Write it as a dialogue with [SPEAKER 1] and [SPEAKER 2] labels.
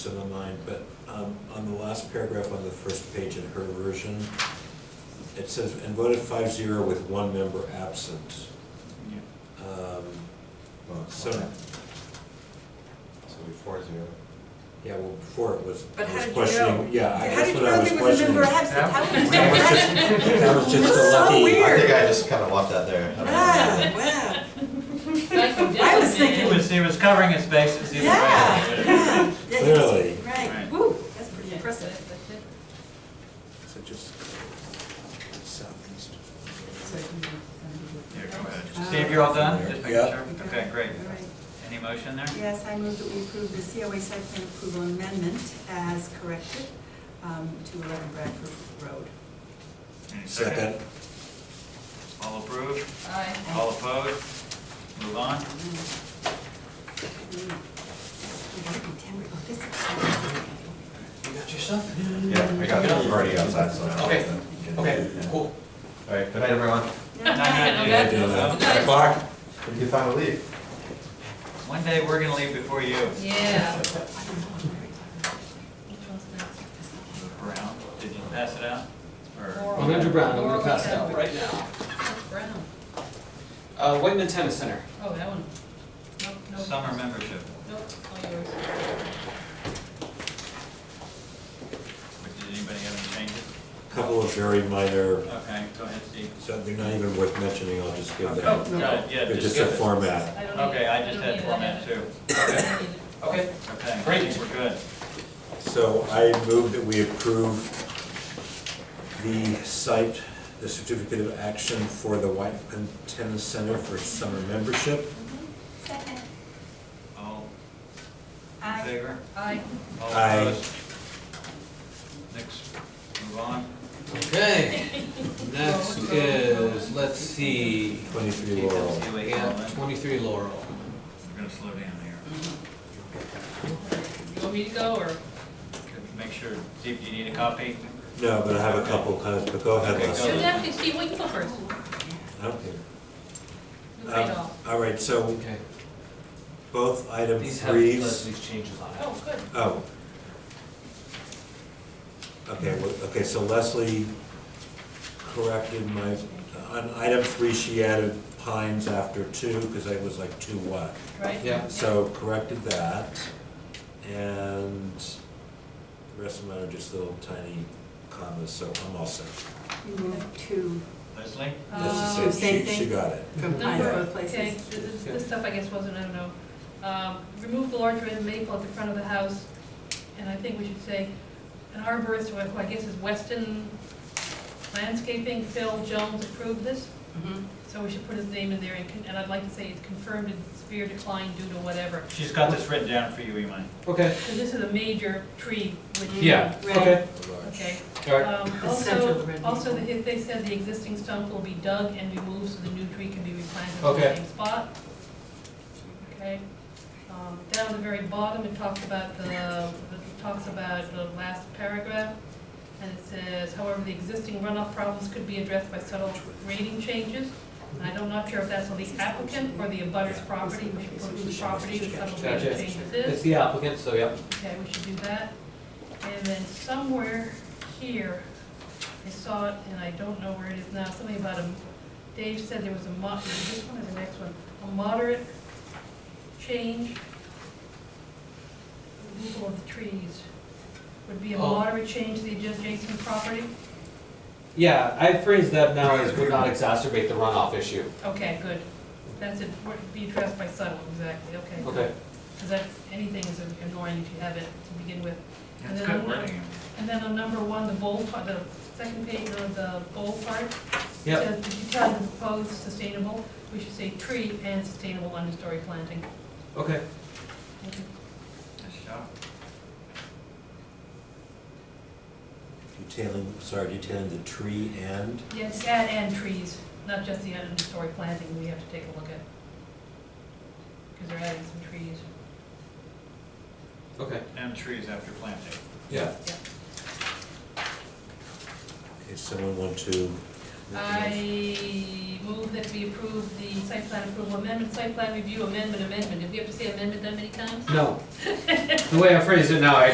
[SPEAKER 1] in my mind, but um, on the last paragraph on the first page in her version, it says, "And voted five zero with one member absent." Um,
[SPEAKER 2] Well, it's
[SPEAKER 1] So,
[SPEAKER 2] not that. So we four zero.
[SPEAKER 1] yeah, well, before it was,
[SPEAKER 3] But
[SPEAKER 1] I
[SPEAKER 3] how
[SPEAKER 1] was
[SPEAKER 3] did you know?
[SPEAKER 1] questioning, yeah, I-
[SPEAKER 3] How
[SPEAKER 1] that's
[SPEAKER 3] did you
[SPEAKER 1] what
[SPEAKER 3] know
[SPEAKER 1] I was
[SPEAKER 3] there was a
[SPEAKER 1] questioning.
[SPEAKER 3] member absent? How did you know that?
[SPEAKER 1] That was just
[SPEAKER 3] It's
[SPEAKER 1] so
[SPEAKER 3] so
[SPEAKER 1] lucky.
[SPEAKER 3] weird.
[SPEAKER 2] I think I just kind of left that there. I don't know.
[SPEAKER 3] Ah, wow. I was
[SPEAKER 4] He
[SPEAKER 3] thinking,
[SPEAKER 4] was, he was covering his bases either way.
[SPEAKER 3] yeah, yeah. yeah, he was-
[SPEAKER 1] Clearly.
[SPEAKER 3] Right,
[SPEAKER 4] Right.
[SPEAKER 3] woo, that's pretty impressive.
[SPEAKER 1] So just southeast.
[SPEAKER 4] Here, go ahead. Steve, you're all done? Just making
[SPEAKER 1] Yeah.
[SPEAKER 4] sure? Okay, great.
[SPEAKER 3] All right.
[SPEAKER 4] Any motion there?
[SPEAKER 3] Yes, I move that we approve the COA site plan approval amendment as corrected um, to 11 Bradford Road.
[SPEAKER 4] Any
[SPEAKER 1] Second,
[SPEAKER 4] All approve? All opposed? Move on?
[SPEAKER 3] Mm. We gotta be tender about this. Okay.
[SPEAKER 4] You got yourself?
[SPEAKER 2] Yeah, I got it. I'm already outside, so. I
[SPEAKER 4] Okay,
[SPEAKER 2] don't know.
[SPEAKER 4] okay,
[SPEAKER 2] Yeah.
[SPEAKER 4] cool.
[SPEAKER 2] All right, good night, everyone.
[SPEAKER 4] Nine,
[SPEAKER 1] yeah, I
[SPEAKER 4] nine, eight.
[SPEAKER 1] do that.
[SPEAKER 2] Nine o'clock. You can finally leave.
[SPEAKER 4] One day, we're gonna leave before you.
[SPEAKER 5] Yeah.
[SPEAKER 4] Brown, did you pass it out? Or,
[SPEAKER 6] On Andrew Brown, I'm gonna pass it out right now.
[SPEAKER 5] Brown,
[SPEAKER 6] Uh, Whiteman Tennis Center.
[SPEAKER 5] oh, that one. Nope, nope.
[SPEAKER 4] summer membership,
[SPEAKER 5] Nope, all yours.
[SPEAKER 4] But did anybody have any changes?
[SPEAKER 1] couple of very minor,
[SPEAKER 4] Okay, go ahead, Steve.
[SPEAKER 1] so they're not even worth mentioning, I'll just give
[SPEAKER 4] Oh,
[SPEAKER 1] them.
[SPEAKER 4] no, yeah,
[SPEAKER 1] They're
[SPEAKER 4] just
[SPEAKER 1] just a
[SPEAKER 4] give it.
[SPEAKER 1] format.
[SPEAKER 5] I don't need-
[SPEAKER 4] Okay, I just
[SPEAKER 5] don't
[SPEAKER 4] had
[SPEAKER 5] need it, I
[SPEAKER 4] format
[SPEAKER 5] had it.
[SPEAKER 4] too.
[SPEAKER 5] I don't need it.
[SPEAKER 6] Okay.
[SPEAKER 4] Okay,
[SPEAKER 6] Great.
[SPEAKER 4] we're good.
[SPEAKER 1] So I move that we approve the site, the certificate of action for the Whiteman Tennis Center for summer membership.
[SPEAKER 3] Second.
[SPEAKER 4] All in
[SPEAKER 3] Aye.
[SPEAKER 4] favor?
[SPEAKER 5] Aye.
[SPEAKER 4] All
[SPEAKER 1] Aye.
[SPEAKER 4] opposed? Next, move on.
[SPEAKER 7] Okay, next is, let's see,
[SPEAKER 1] Twenty-three Laurel.
[SPEAKER 4] TWA
[SPEAKER 7] we have
[SPEAKER 4] Coleman.
[SPEAKER 7] twenty-three Laurel.
[SPEAKER 4] We're gonna slow down here.
[SPEAKER 5] You want me to go, or?
[SPEAKER 4] Make sure, Steve, do you need a copy?
[SPEAKER 1] No, but I have a couple comments, but go ahead,
[SPEAKER 4] Okay,
[SPEAKER 1] Leslie.
[SPEAKER 4] go.
[SPEAKER 5] Should that, Steve, well, you go first.
[SPEAKER 1] I don't care.
[SPEAKER 5] You read
[SPEAKER 1] Um,
[SPEAKER 5] all.
[SPEAKER 1] All right, so
[SPEAKER 7] Okay,
[SPEAKER 1] both item
[SPEAKER 7] these have these
[SPEAKER 1] threes.
[SPEAKER 7] these changes on it.
[SPEAKER 5] Oh, good.
[SPEAKER 1] Oh. Okay, well, okay, so Leslie corrected my, on item three, she added pines after two, because I was like, two what?
[SPEAKER 5] Right?
[SPEAKER 7] Yeah.
[SPEAKER 1] So corrected that, and the rest of mine are just little tiny commas, so I'm all set.
[SPEAKER 3] We move to,
[SPEAKER 4] Leslie?
[SPEAKER 1] That's
[SPEAKER 5] Um,
[SPEAKER 1] the same,
[SPEAKER 3] Oh, Same
[SPEAKER 1] she, she
[SPEAKER 3] thing?
[SPEAKER 1] got it.
[SPEAKER 3] from
[SPEAKER 5] Number,
[SPEAKER 3] either of those
[SPEAKER 5] okay,
[SPEAKER 3] places.
[SPEAKER 5] this, this stuff I guess wasn't, I don't know. Um, remove the large red maple at the front of the house, and I think we should say, an arborist, who I guess is Weston Landscaping, Phil Jones approved this,
[SPEAKER 3] Mhm.
[SPEAKER 5] so we should put his name in there, and con- and I'd like to say it's confirmed in severe decline due to whatever.
[SPEAKER 4] She's got this written down for you, Iman.
[SPEAKER 6] Okay.
[SPEAKER 5] Because this is a major tree, which.
[SPEAKER 6] Yeah,
[SPEAKER 3] Right.
[SPEAKER 6] okay,
[SPEAKER 5] Okay.
[SPEAKER 6] all right.
[SPEAKER 5] Um,
[SPEAKER 3] The central
[SPEAKER 5] Also,
[SPEAKER 3] red
[SPEAKER 5] also,
[SPEAKER 3] maple.
[SPEAKER 5] if they said the existing stump will be dug and removed so the new tree can be replanted in
[SPEAKER 6] Okay.
[SPEAKER 5] the same spot. Okay. Um, Down at the very bottom, it talks about the, it talks about the last paragraph. And it says, however, the existing runoff problems could be addressed by subtle grading changes. And I'm not sure if that's on the applicant or the abutter's property, which is whose property the subtle grading
[SPEAKER 6] Gotcha.
[SPEAKER 5] changes is.
[SPEAKER 6] It's the applicant, so yeah.
[SPEAKER 5] Okay, we should do that. And then somewhere here, I saw it, and I don't know where it is now, something about a, Dave said there was a mo, is it this one or the next one? A moderate change, removal of the trees, would be a
[SPEAKER 6] Oh.
[SPEAKER 5] moderate change to the adjacent property?
[SPEAKER 6] Yeah, I phrased that now as would not exacerbate the runoff issue.
[SPEAKER 5] Okay, good. That's it, would be addressed by subtle, exactly, okay.
[SPEAKER 6] Okay.
[SPEAKER 5] Because that's, anything is annoying if you have it to begin with. And
[SPEAKER 4] That's
[SPEAKER 5] then
[SPEAKER 4] good
[SPEAKER 5] on-
[SPEAKER 4] wording.
[SPEAKER 5] And then on number one, the bold part, the second page of the bold part. it
[SPEAKER 6] Yep.
[SPEAKER 5] says, If you tell them proposed sustainable, we should say tree and sustainable understory planting.
[SPEAKER 6] Okay.
[SPEAKER 4] Nice job.
[SPEAKER 1] Detailing, sorry, detailing the tree and,
[SPEAKER 5] Yes, add and trees, not just the understory planting we have to take a look at. Because they're adding some trees.
[SPEAKER 6] Okay.
[SPEAKER 4] And trees after planting.
[SPEAKER 6] Yeah.
[SPEAKER 1] if someone want to.
[SPEAKER 5] I move that we approve the site plan approval amendment, site plan review amendment, amendment. Did we have to say amendment that many times?
[SPEAKER 6] No. The way I phrased it now, I